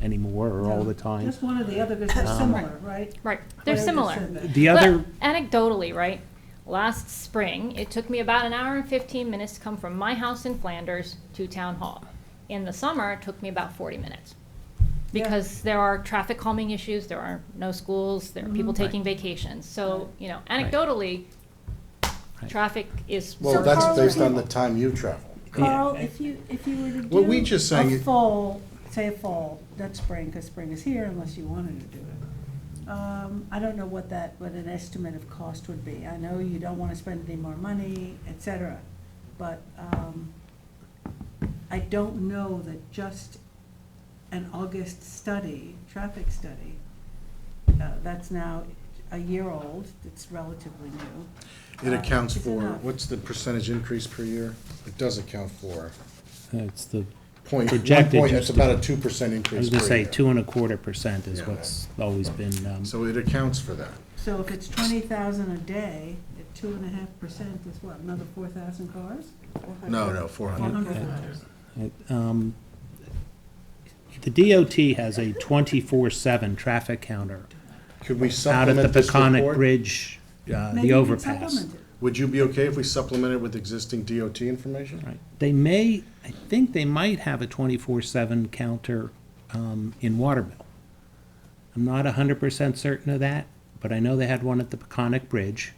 anymore or all the time. Just one or the other, because they're Um, similar, right? Right, they're Whatever similar. said that. The other, But anecdotally, right? Last spring, it took me about an hour and 15 minutes to come from my house in Flanders to town hall. In the summer, it took me about 40 minutes. Yeah. Because there are traffic calming issues, there are no schools, there are people Mhm. taking vacations. So, you know, anecdotally, Right. traffic is. Well, So that's Carl- based on the time you travel. Carl, if you, if you were to do. Well, we just sang A it- fall, say a fall, that's spring, because spring is here unless you wanted to do it. Um, I don't know what that, what an estimate of cost would be. I know you don't want to spend any more money, et cetera, but, um, I don't know that just an August study, traffic study, uh, that's now a year old, it's relatively new. It Uh, accounts is for, enough. what's the percentage increase per year? It does account for it's the, point, one Projected point, just it's to- about a two percent I increase was per gonna say, year. two and a quarter percent is Yeah. what's always been, um, So it accounts for that. So if it's twenty thousand a day, at two and a half percent is what, another four thousand cars? No, no, four Four hundred. hundred cars. Uh, um, the DOT has a twenty-four seven traffic counter Could we out at the supplement this Peconic report? Bridge, uh, Maybe the you can overpass. supplement it. Would you be okay if we supplemented with existing DOT information? Right. They may, I think they might have a twenty-four seven counter, um, in Watermill. I'm not hundred percent certain of that, but I know they had one at the Peconic Bridge.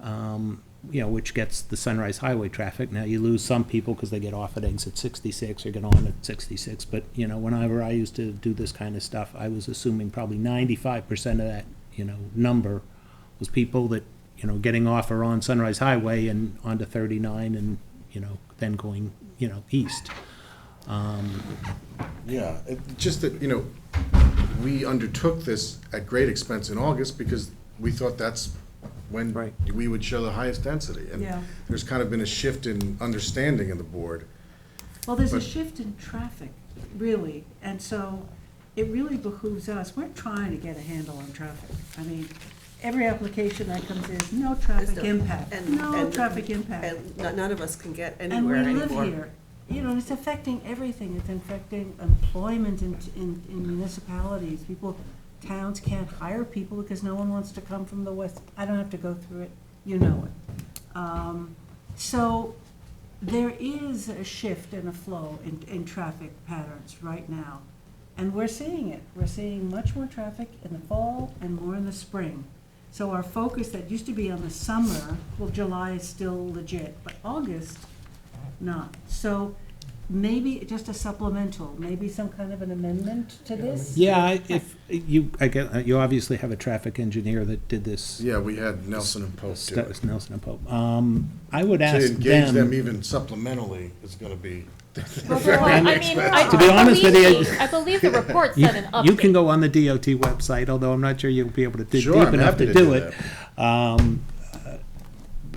Um, you know, which gets the Sunrise Highway traffic. Now, you lose some people because they get off at exit sixty-six or get on at sixty-six, but, you know, whenever I used to do this kind of stuff, I was assuming probably ninety-five percent of that, you know, number was people that, you know, getting off or on Sunrise Highway and onto thirty-nine and, you know, then going, you know, east. Yeah, it, just that, you know, we undertook this at great expense in August because we thought that's when Right. we would show the highest density. And Yeah. There's kind of been a shift in understanding in the board. Well, there's a But- shift in traffic, really, and so it really behooves us, we're trying to get a handle on traffic. I mean, every application that comes in, no traffic There's no- impact, and- no and- traffic impact. And no- none of us can get And we anywhere live anymore. here. You know, it's affecting everything. It's affecting employment in, in in municipalities. People, towns can't hire people because no one wants to come from the west. I don't have to go through it. You know it. Um, So there is a shift and a flow in, in traffic patterns right now. And we're seeing it. We're seeing much more traffic in the fall and more in the spring. So our focus that used to be on the summer, well, July is still legit, but August, not. So maybe just a supplemental, maybe some kind of an amendment to this? Yeah, I- if, you, I get, uh, you obviously have a traffic engineer that did this. Yeah, we had Nelson and Pope do Stu- it. Nelson and Pope. Um, I would ask To them. engage them even supplementally is gonna be, Well, I mean, I- To be I honest with believe you- the- I believe the report You, said an update. you can go on the DOT website, although I'm not sure you'll be able to dig Sure, deep I'm enough happy to to do do it. Um, uh,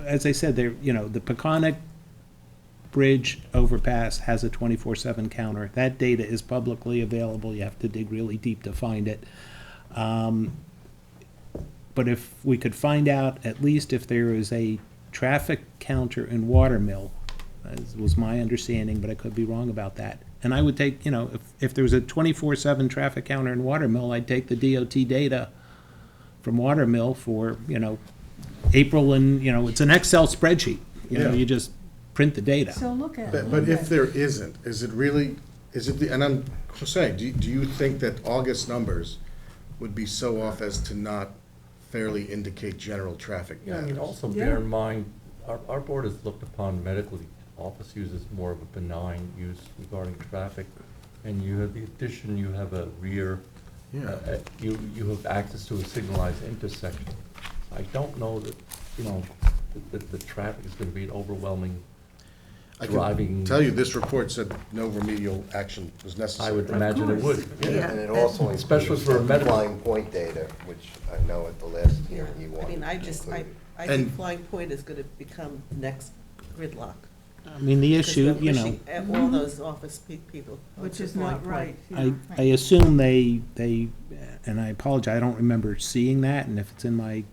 As I said, there, you know, the Peconic Bridge overpass has a twenty-four seven counter. That data is publicly available. You have to dig really deep to find it. Um, But if we could find out, at least if there is a traffic counter in Watermill, as was my understanding, but I could be wrong about that. And I would take, you know, if, if there was a twenty-four seven traffic counter in Watermill, I'd take the DOT data from Watermill for, you know, April and, you know, it's an Excel spreadsheet. You know, Yeah. you just print the data. So look at but it. but if there isn't, is it really, is it, the and I'm saying, do, you- do you think that August numbers would be so off as to not fairly indicate general traffic Yeah, I mean, patterns? also bear Yeah. in mind, our, our board has looked upon medical office use as more of a benign use regarding traffic. And you have the addition, you have a rear, uh, Yeah. uh, you, you have access to a signalized intersection. I don't know that, you know, that, that the traffic is gonna be an overwhelming I can driving- tell you, this report said no remedial action was necessary. I would imagine it would. course. Yeah. And it also Especially includes for a the medical. flying point data, which I know at the last hearing you I wanted mean, I just, I, included. I think And- Flying Point is gonna become next gridlock. I mean, the issue, you know, At eh, all those office pe- people. Mm-hmm. Which onto is Flying not Point. right. you I, know. I assume they, they, and I apologize, I don't remember seeing that, and if it's in my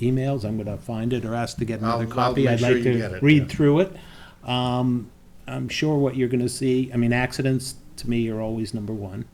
emails, I'm gonna find it or ask to get another I'll- I'll copy. make I'd sure like you get to it, yeah. read through it. Um, I'm sure what you're gonna see, I mean, accidents to me are always number one.